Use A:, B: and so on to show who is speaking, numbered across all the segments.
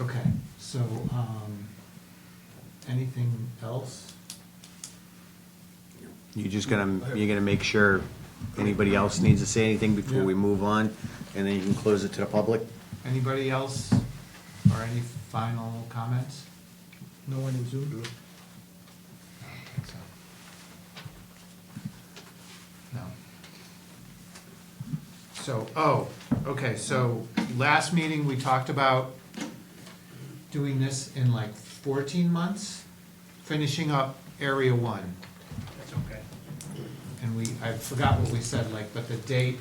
A: Okay, so, um, anything else?
B: You're just gonna, you're gonna make sure anybody else needs to say anything before we
A: Yeah.
B: move on, and then you can close it to the public?
A: Anybody else, or any final comments?
C: No one in Zoom?
A: I don't think so. No. So, oh, okay, so last meeting, we talked about doing this in like fourteen months, finishing up area one.
D: That's okay.
A: And we, I forgot what we said, like, but the date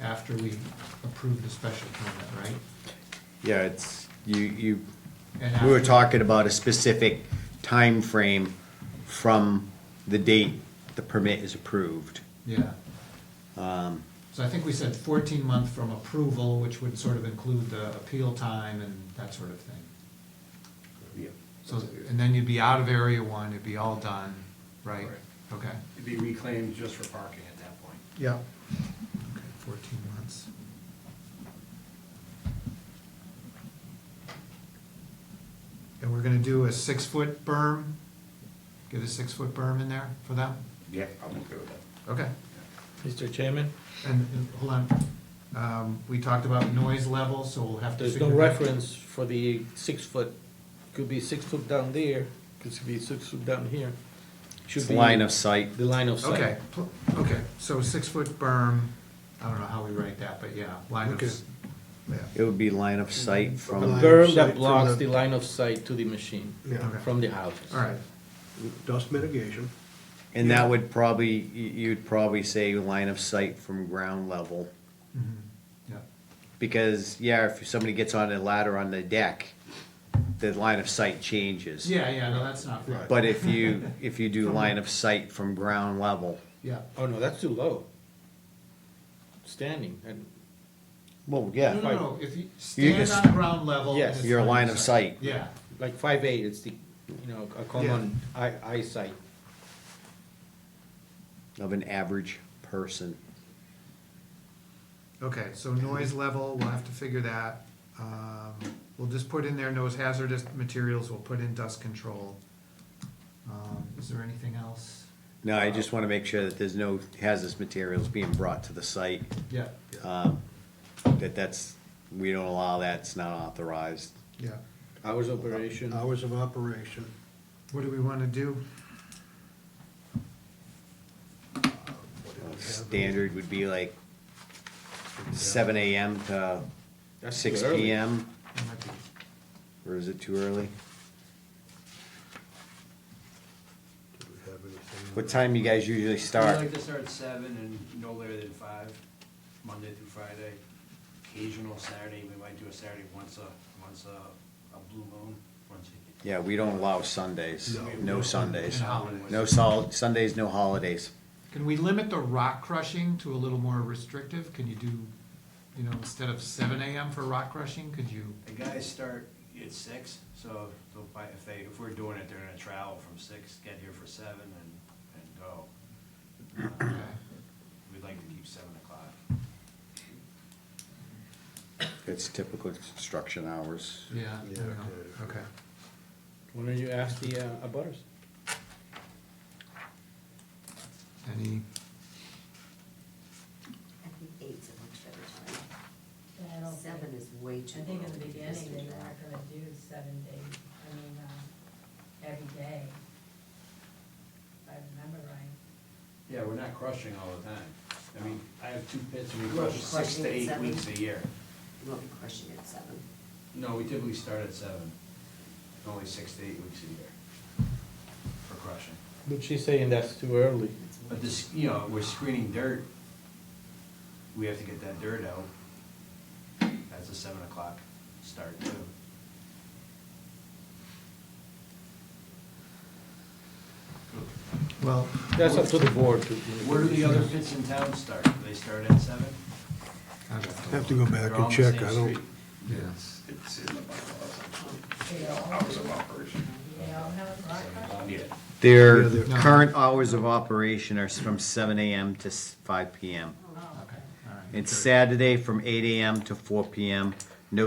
A: after we approve the special permit, right?
B: Yeah, it's, you, you,
A: And
B: we were
A: after-
B: talking about a specific time frame from the date the permit is approved.
A: Yeah,
B: Um,
A: so I think we said fourteen month from approval, which would sort of include the appeal time and that sort of thing. So, and then you'd be out of area one, it'd be all done, right?
D: Correct.
A: Okay.
D: It'd be reclaimed just for parking at that point.
A: Yeah. Okay, fourteen months. And we're gonna do a six-foot berm, get a six-foot berm in there for them?
E: Yeah, I'm okay with that.
A: Okay,
C: Mr. Chairman,
A: and, and, hold on, um, we talked about noise level, so we'll have to
C: there's
A: figure.
C: no reference for the six foot, could be six foot down there, could be six foot down here. Should
B: It's
C: be
B: line of sight,
C: The line of sight.
A: Okay, pl- okay, so six-foot berm, I don't know how we write that, but yeah, line of, s-
B: it would be line of sight
C: A
B: from,
C: berm
F: sight
C: that
F: from
C: blocks the
F: the-
C: line of sight to the machine,
F: Yeah,
A: Okay.
C: from the houses.
A: all right,
F: dust mitigation,
B: and that would probably, you- you'd probably say line of sight from ground level.
A: mhm, yeah.
B: Because, yeah, if somebody gets on a ladder on the deck, the line of sight changes.
A: Yeah, yeah, no, that's not right.
B: But if you, if you do line of sight from ground level,
A: Yeah,
C: Oh, no, that's too low. Standing, and,
B: well,
A: no, no,
B: yeah,
A: no, if you stand
B: just-
A: on ground level.
C: Yes,
A: it's
B: your line of sight.
A: Yeah,
C: like five eight, it's the, you know, a common eye, eyesight.
B: of an average person.
A: okay, so noise level, we'll have to figure that. Um, We'll just put in there, no hazardous materials, we'll put in dust control. Um, Is there anything else?
B: No, I just wanna make sure that there's no hazardous materials being brought to the site,
A: Yeah,
B: um, that that's, we don't allow that, it's not authorized.
A: yeah.
C: Hours operation,
F: hours of operation.
A: What do we wanna do?
F: what do we have?
B: Standard would be like seven AM to
C: That's
B: six
C: too early.
B: PM,
A: That might be-
B: or is it too early?
F: Do we have anything?
B: What time you guys usually start?
D: We like to start at seven and no later than five, Monday through Friday. Occasional Saturday, we might do a Saturday once a, once a, a blue moon, once a.
B: Yeah, we don't allow Sundays,
F: No.
B: no Sundays,
A: No.
B: no sol, Sundays, no holidays.
A: Can we limit the rock crushing to a little more restrictive? Can you do, you know, instead of seven AM for rock crushing, could you?
D: The guys start at six, so they'll buy, if they, if we're doing it, they're gonna travel from six, get here for seven and, and go. Uh,
A: okay.
D: We'd like to keep seven o'clock.
B: It's typical construction hours.
A: Yeah, I
F: Yeah,
A: don't know.
F: okay.
A: okay.
C: Why don't you ask the, uh, abutters?
A: Any,
G: I think eight's a much better time. Seven is way
H: I
G: too long.
H: think in the beginning, they weren't gonna do seven days, I mean, um, every day. If I remember right.
D: Yeah, we're not crushing all the time. I mean, I have two pits and we
G: Well,
D: crush six
G: crushing
D: to
G: at
D: eight
G: seven.
D: weeks a year.
G: We'll be crushing at seven.
D: No, we typically start at seven, only six to eight weeks a year for crushing.
C: But she's saying that's too early.
G: That's
D: But
G: one.
D: this, you know, we're screening dirt, we have to get that dirt out. That's a seven o'clock start too.
A: well,
C: That's up to the board to.
D: Where do the other pits in town start? Do they start at seven?
A: I'd
F: Have to go back
D: They're all
F: and
D: on the
F: check,
D: same
F: I don't,
D: street.
A: Yes.
E: It's in the bylaws,
H: They all
E: hours
H: do-
E: of operation.
H: They all have rock
D: Seven
H: crushing?
D: o'clock. Yeah.
B: Their
F: Yeah, they're-
A: No.
B: current hours of operation are from seven AM to s- five PM.
H: Oh,
A: Okay, all right.
B: It's Saturday from eight AM to four PM,